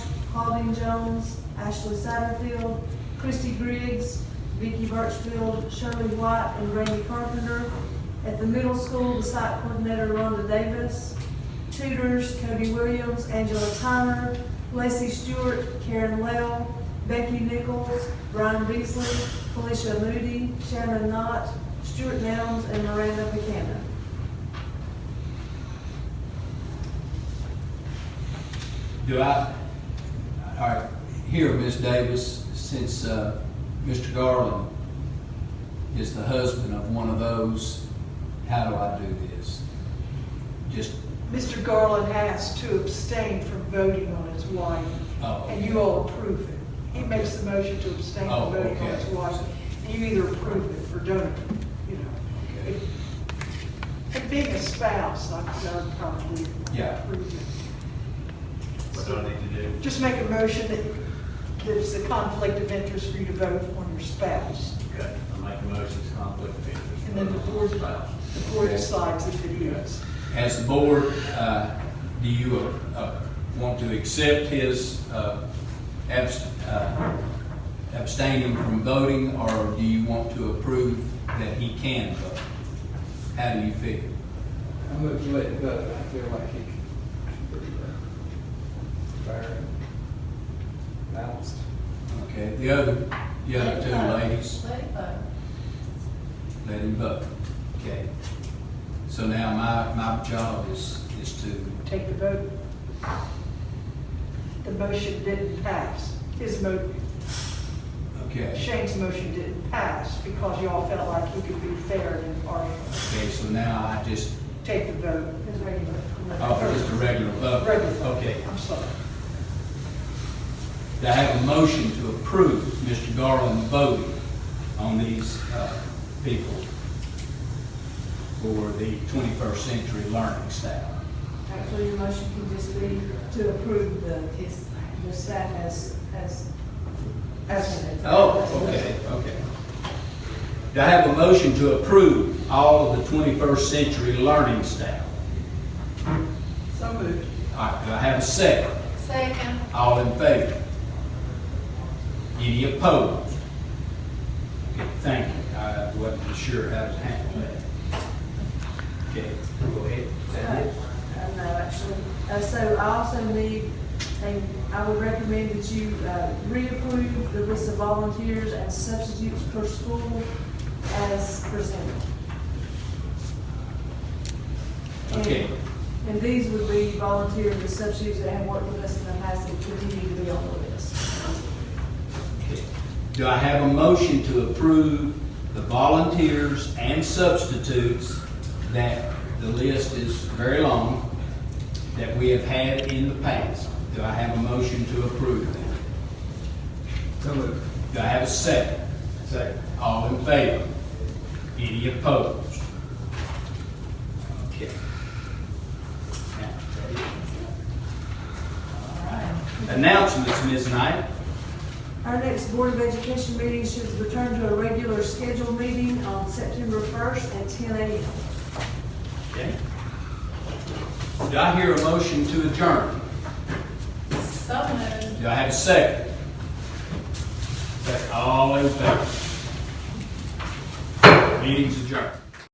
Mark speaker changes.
Speaker 1: Claudine Jones, Ashley Satterfield, Christy Griggs, Vicky Birchfield, Shirley White, and Randy Carpenter. At the middle school, the site coordinator Rhonda Davis. Tutors Cody Williams, Angela Tyner, Lacey Stewart, Karen Lell, Becky Nichols, Brian Beasley, Felicia Moody, Shannon Knott, Stuart Nelms, and Miranda Buchanan.
Speaker 2: Do I, all right, here, Ms. Davis, since uh, Mr. Garland is the husband of one of those, how do I do this? Just,
Speaker 3: Mr. Garland has to abstain from voting on his wife,
Speaker 2: oh,
Speaker 3: and you all approve it. He makes the motion to abstain
Speaker 2: Oh,
Speaker 3: from voting on his
Speaker 2: okay.
Speaker 3: wife, and you either approve it or don't, approve it, you know.
Speaker 2: Okay.
Speaker 3: If- If being a spouse, I I would probably
Speaker 2: Yeah.
Speaker 3: approve it.
Speaker 4: What do I need to do?
Speaker 3: Just make a motion that there's a conflict of interest for you to vote on your spouse.
Speaker 4: Okay, I make a motion, it's conflict of interest.
Speaker 3: And then the board,
Speaker 4: Spouse.
Speaker 3: the board decides if it is.
Speaker 2: as the board, uh, do you uh, uh, want to accept his uh, abs- uh, abstaining from voting, or do you want to approve that he can vote? How do you feel?
Speaker 5: I'm going to let it go. I feel like he can be fair and balanced.
Speaker 2: Okay, the other, the other two ladies?
Speaker 6: Let it vote.
Speaker 2: let him vote. Okay. So now my, my job is, is to,
Speaker 3: Take the vote. The motion didn't pass. His mo,
Speaker 2: okay.
Speaker 3: Shane's motion didn't pass because you all felt like he could be fair and impartial.
Speaker 2: Okay, so now I just,
Speaker 3: Take the vote. His regular.
Speaker 2: oh, just a regular vote.
Speaker 3: Regular.
Speaker 2: Okay.
Speaker 3: I'm sorry.
Speaker 2: Do I have a motion to approve Mr. Garland voting on these, uh, people for the twenty-first century learning style?
Speaker 1: Actually, your motion can just be to approve the, the staff as, as, as.
Speaker 2: Oh, okay, okay. Do I have a motion to approve all of the twenty-first century learning style?
Speaker 3: So moved.
Speaker 2: All right, do I have a second?
Speaker 6: Second.
Speaker 2: All in favor? Any opposed? Okay, thank you. I wasn't sure how to handle that. Okay, go ahead. Is that it?
Speaker 1: Uh, No, actually, Uh, so I also need, and I would recommend that you uh, reapprove the list of volunteers and substitutes per school as presented. And-
Speaker 2: Okay.
Speaker 1: And these would be volunteers and substitutes that have worked with us in the past and continue to be on the list.
Speaker 2: Okay. Do I have a motion to approve the volunteers and substitutes that the list is very long, that we have had in the past? Do I have a motion to approve that?
Speaker 5: So moved.
Speaker 2: Do I have a second? Second. All in favor? Any opposed? Okay. Now, that is- All right. Announcements, Ms. Knight.
Speaker 1: Our next Board of Education meeting should return to a regular scheduled meeting on September 1st at 10 a.m.
Speaker 2: Okay. Do I hear a motion to adjourn?
Speaker 6: So moved.
Speaker 2: Do I have a second? Second. All in favor? Meeting's adjourned.